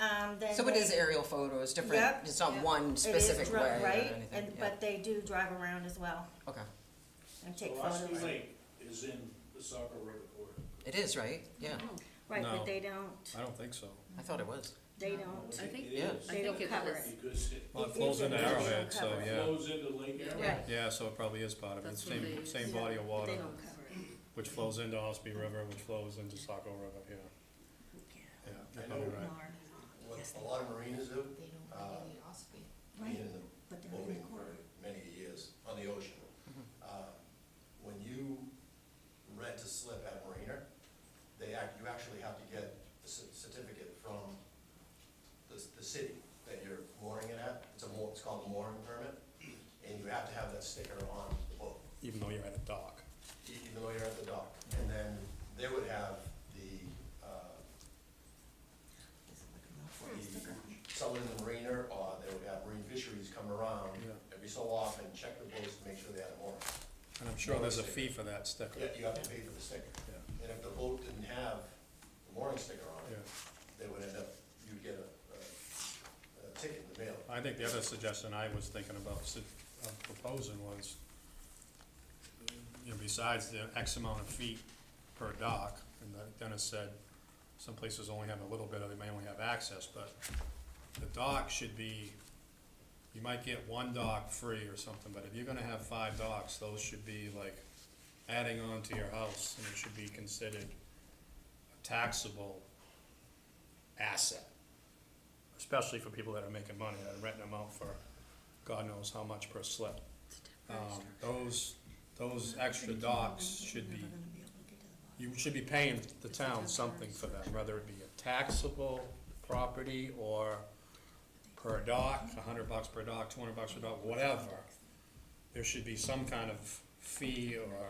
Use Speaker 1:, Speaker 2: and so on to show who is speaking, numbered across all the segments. Speaker 1: Um, then
Speaker 2: So it
Speaker 1: they-
Speaker 2: is aerial photos, different,
Speaker 1: Yep.
Speaker 2: it's not
Speaker 3: Yep.
Speaker 2: one
Speaker 1: it is
Speaker 2: specific
Speaker 1: dri-
Speaker 2: way or
Speaker 1: Right,
Speaker 2: anything.
Speaker 1: and,
Speaker 2: yeah.
Speaker 1: but they do drive around as well
Speaker 2: Okay,
Speaker 1: and take
Speaker 4: Gillespie
Speaker 1: photos.
Speaker 4: Lake is in the Saco River corridor.
Speaker 2: it is, right? Yeah,
Speaker 1: Right,
Speaker 5: No.
Speaker 1: but they don't,
Speaker 5: I don't think so.
Speaker 2: I thought it was.
Speaker 1: they
Speaker 3: No.
Speaker 1: don't,
Speaker 3: I think-
Speaker 4: It is,
Speaker 1: they
Speaker 3: think
Speaker 1: don't
Speaker 3: it
Speaker 1: cover
Speaker 3: was-
Speaker 1: it.
Speaker 4: because it
Speaker 5: Well, it
Speaker 1: It
Speaker 5: flows
Speaker 1: is
Speaker 5: into
Speaker 1: an area
Speaker 5: Arrowhead, so,
Speaker 1: covered.
Speaker 5: yeah.
Speaker 4: flows into Lake Arrowhead.
Speaker 1: Right.
Speaker 5: Yeah, so it probably is part of it,
Speaker 3: That's what
Speaker 5: same,
Speaker 3: they-
Speaker 5: same body of
Speaker 1: But
Speaker 5: water,
Speaker 1: they don't cover it.
Speaker 5: which flows into Ospey River, which flows into Saco River, yeah. Yeah, you're
Speaker 6: I
Speaker 5: probably
Speaker 6: know.
Speaker 5: right.
Speaker 6: What a lot of marinas do,
Speaker 3: They don't
Speaker 6: Uh,
Speaker 3: have any Osprey.
Speaker 6: being in the
Speaker 1: but they're in the
Speaker 6: boating for
Speaker 1: corridor.
Speaker 6: many years on the ocean. uh, When you rent a slip at Marina, they act, you actually have to get a cer- certificate from the, the city that you're mooring it at. It's a moor, it's called a mooring permit, and you have to have that sticker on the boat.
Speaker 5: Even though you're at a dock.
Speaker 6: even though you're at the dock. And then they would have the, uh, the, someone in the marina, or they would have marine fisheries come around
Speaker 5: Yeah.
Speaker 6: every so often, check the boats to make sure they had a mooring.
Speaker 5: And I'm sure there's a fee for that sticker.
Speaker 6: You- You have to pay for the sticker.
Speaker 5: Yeah.
Speaker 6: And if the boat didn't have the mooring sticker on it,
Speaker 5: Yeah.
Speaker 6: they would end up, you'd get a, a- a ticket in the mail.
Speaker 5: I think the other suggestion I was thinking about su- of proposing was, you know, besides the X amount of feet per dock, and the- Dennis said, some places only have a little bit, or they may only have access, but the dock should be, you might get one dock free or something, but if you're gonna have five docks, those should be like adding on to your house, and it should be considered a taxable asset especially for people that are making money, that are renting them out for God knows how much per slip. Um, those, those extra docks should be, you should be paying the town something for them, whether it be a taxable property or per dock, a hundred bucks per dock, two hundred bucks per dock, whatever. There should be some kind of fee or,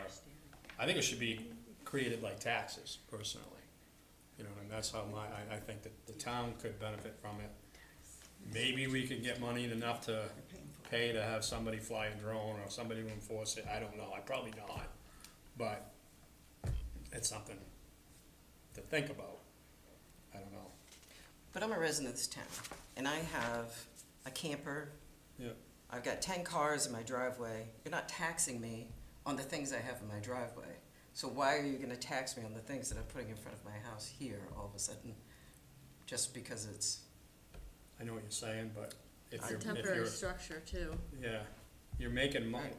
Speaker 5: I think it should be created like taxes personally. You know, and that's how my, I, I think that the town could benefit from it. Maybe we could get money enough to pay to have somebody fly a drone or somebody to enforce it, I don't know, I probably not. But it's something to think about, I don't know.
Speaker 2: But I'm a resident of this town, and I have a camper,
Speaker 5: Yeah.
Speaker 2: I've got ten cars in my driveway. You're not taxing me on the things I have in my driveway. So why are you gonna tax me on the things that I'm putting in front of my house here all of a sudden? Just because it's,
Speaker 5: I know what you're saying, but if
Speaker 3: It's a
Speaker 5: you're, if you're.
Speaker 3: temporary structure too.
Speaker 5: Yeah, you're making money.
Speaker 2: Right.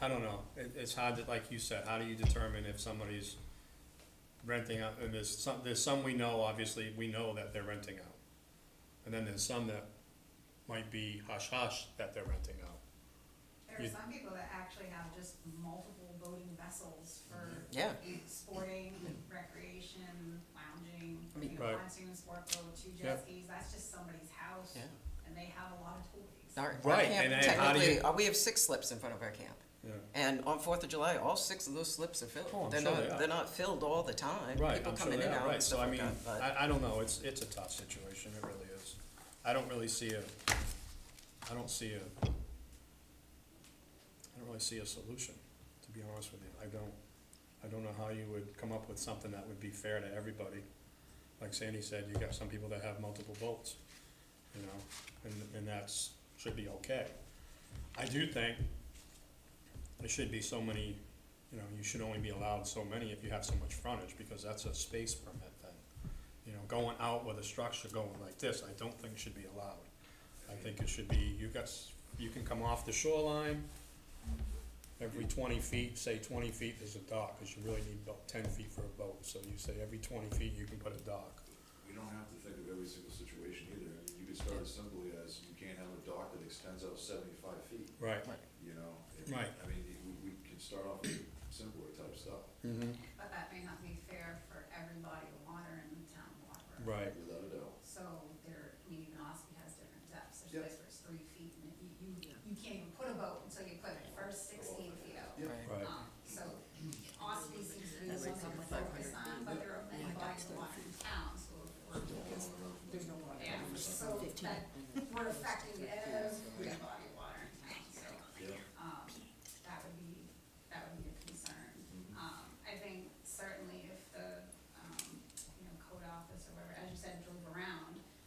Speaker 5: I don't know, it, it's hard to, like you said, how do you determine if somebody's renting out, and there's some, there's some we know, obviously, we know that they're renting out. And then there's some that might be hush hush that they're renting out.
Speaker 7: There
Speaker 5: You-
Speaker 7: are some people that actually have just multiple boating vessels for
Speaker 2: Mm-hmm. yeah,
Speaker 7: sporting, recreation, lounging,
Speaker 2: I mean-
Speaker 7: you know,
Speaker 5: Right.
Speaker 7: pontoon sport boat, two
Speaker 5: Yeah.
Speaker 7: jet skis, that's just somebody's house.
Speaker 2: Yeah.
Speaker 7: And they have a lot of toys.
Speaker 2: our, our
Speaker 5: Right,
Speaker 2: camp
Speaker 5: and then how do you-
Speaker 2: technically, uh, we have six slips in front of our camp.
Speaker 5: Yeah.
Speaker 2: And on Fourth of July, all six of those slips are
Speaker 5: Oh, I'm
Speaker 2: filled. They're
Speaker 5: sure they
Speaker 2: not,
Speaker 5: are.
Speaker 2: they're not filled all the time.
Speaker 5: Right,
Speaker 2: People
Speaker 5: I'm sure
Speaker 2: come in
Speaker 5: they
Speaker 2: and
Speaker 5: are,
Speaker 2: out
Speaker 5: right,
Speaker 2: and
Speaker 5: so
Speaker 2: stuff
Speaker 5: I
Speaker 2: like
Speaker 5: mean,
Speaker 2: that, but.
Speaker 5: I, I don't know, it's, it's a tough situation, it really is. I don't really see a, I don't see a, I don't really see a solution, to be honest with you. I don't, I don't know how you would come up with something that would be fair to everybody. Like Sandy said, you got some people that have multiple votes, you know, and, and that's, should be okay. I do think there should be so many you know, you should only be allowed so many if you have so much frontage, because that's a space permit thing. You know, going out with a structure going like this, I don't think should be allowed. I think it should be, you got, s- you can come off the shoreline, every twenty feet, say twenty feet is a dock, cause you really need about ten feet for a boat, so you say every twenty feet you can put a dock.
Speaker 8: We don't have to think of every single situation either. I mean, you could start as simply as you can't have a dock that extends out seventy-five feet,
Speaker 5: Right.
Speaker 8: you know? If-
Speaker 5: Right.
Speaker 8: I mean, we, we can start off with simpler type stuff,
Speaker 7: But that may not be fair for every body of water in the town of Walker.
Speaker 5: Right,
Speaker 8: without a doubt.
Speaker 7: So there, I mean, even Ospey has different depths, there's
Speaker 8: Yep.
Speaker 7: places where it's three feet and you, you, you can't even put a boat until you put the first sixteen Um, um, Um,